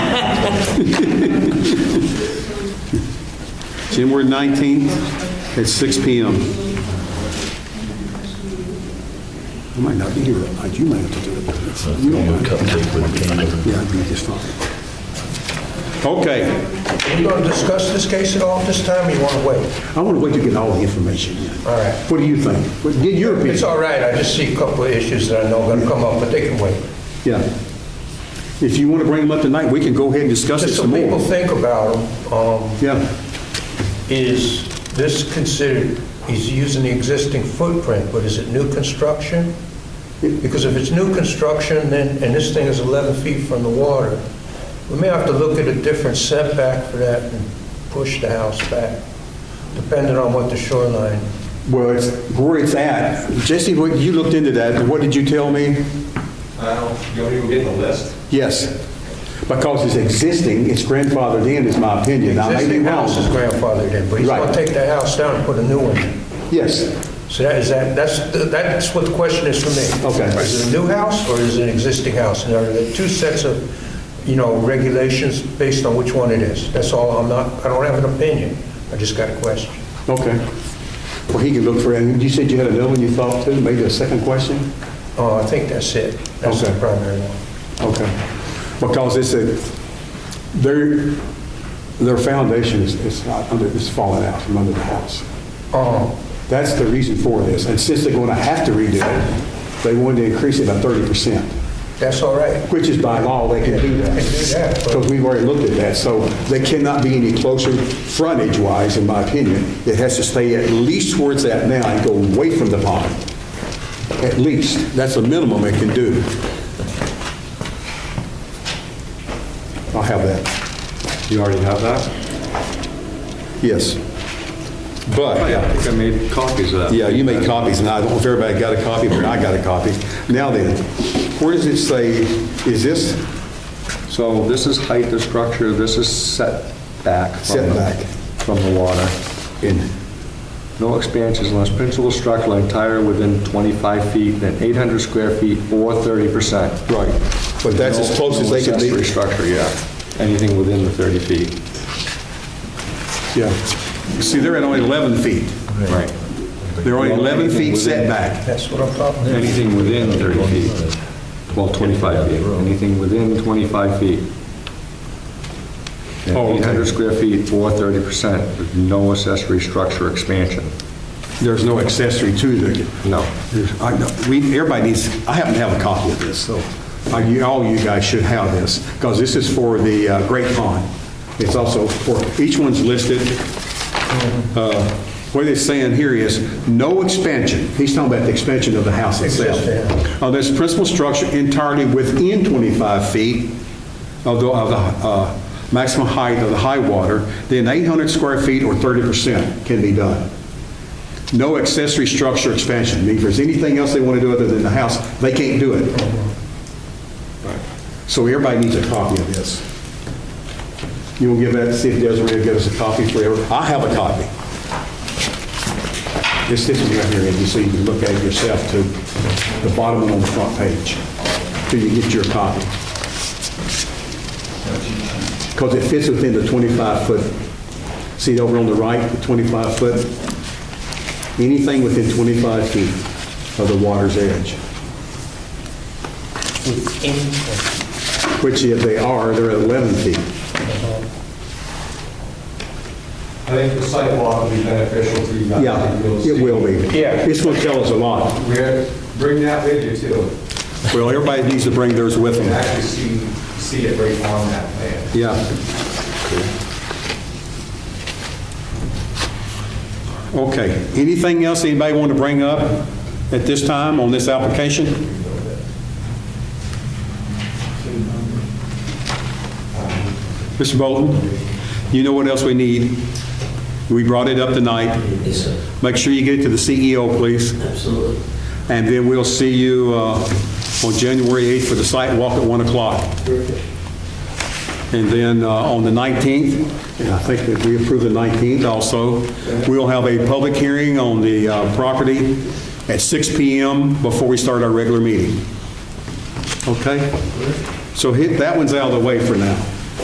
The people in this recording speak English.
January 19th at 6 PM. I might not be here that night, you might have to do it. You don't mind. Yeah, I'd be just fine. Okay, Are you going to discuss this case at all at this time, or you want to wait? I want to wait to get all the information in. All right. What do you think? What- Get your It's opinion. all right, I just see a couple of issues that I know are going to come up, but they can wait. Yeah. If you want to bring them up tonight, we can go ahead and discuss it Just so some people more. think about them, um, Yeah. is this considered, he's using the existing footprint, but is it new construction? Because if it's new construction, then, and this thing is 11 feet from the water, we may have to look at a different setback for that and push the house back, depending on what the shoreline. Well, it's where it's at. Jesse, what- you looked into that, and what did you tell me? I don't, you don't even get the list? Yes. Because it's existing, it's grandfathered in, is my opinion. Now, maybe Existing wrong. house is grandfathered in, but he's going Right. to take that house down and put a new one in. Yes. So that is, that, that's, that's what the question is for me. Okay. Is it a new house or is it an existing house? And are there two sets of, you know, regulations based on which one it is? That's all, I'm not, I don't have an opinion, I just got a question. Okay. Well, he can look for it. And you said you had another one you thought too, maybe a second question? Uh, I think that's it, that's the Okay. primary one. Okay. Because it's a, their, their foundation is, is not under, is falling out from under the house. Um, That's the reason for this. And since they're going to have to redo it, they wanted to increase it by 30%. That's all right. Which is by law, they can do that. They can do that, but- Because we've already looked at that, so they cannot be any closer frontage-wise, in my opinion. It has to stay at least where it's at now and go away from the pond. At least, that's the minimum it can do. I'll have that. You already have that? Yes. But, Oh, Yeah, I yeah. think I made copies of that. Yeah, you made copies, and I don't know if everybody got a copy, but I got a copy. Now then, where does it say, is this So this is height of structure, this is setback. from the- Setback. From the water. in, No expansions unless principal structural entire within 25 feet, then 800 square feet or 30%. right, but that's as No- close as no they can accessory be. structure, yeah. Anything within the 30 feet. Yeah. See, they're at only 11 feet. Right. They're only 11 feet setback. That's what I'm talking about. Anything within 30 feet. Well, 25 feet. Anything within 25 feet. And Oh, okay. 800 square feet or 30% with no accessory structure expansion. There's no accessory to the, No. there's- I know, we, everybody needs, I happen to have a copy of this, so I- you- all you guys should have this, because this is for the uh, Great Pond. It's also for, each one's listed, uh, what it's saying here is, no expansion, he's talking about the expansion of the house itself. Of this principal structure entirely within 25 feet of the, of the uh, maximum height of the high water, then 800 square feet or 30% can be done. No accessory structure expansion, I mean, if there's anything else they want to do other than the house, they can't do it. So everybody needs a copy of this. You will give that, to see if Desiree will get us a copy for every, I have a copy. This, this is right here, Andy, so you can look at it yourself to the bottom one on the front page, till you get your copy. Because it fits within the 25-foot, see over on the right, the 25-foot? Anything within 25 feet of the water's edge, which if they are, they're at 11 feet. I think the sidewalk will be beneficial to you guys. Yeah, You'll it see. will be. Yeah. It's going to tell us a lot. We're- Bring that with you too. Well, everybody needs to bring theirs with You can actually see, see it right on that plan. Yeah. Okay, anything else anybody want to bring up at this time on this application? Mr. Bolton, you know what else we need? We brought it up tonight. Yes, sir. Make sure you get it to the CEO, please. Absolutely. And then we'll see you uh, on January 8th for the site walk at 1 o'clock. And then uh, on the 19th, and I think that we approve the 19th also, we'll have a public hearing on the uh, property at 6 PM before we start our regular meeting. Okay? So hit, that one's out of the way for now.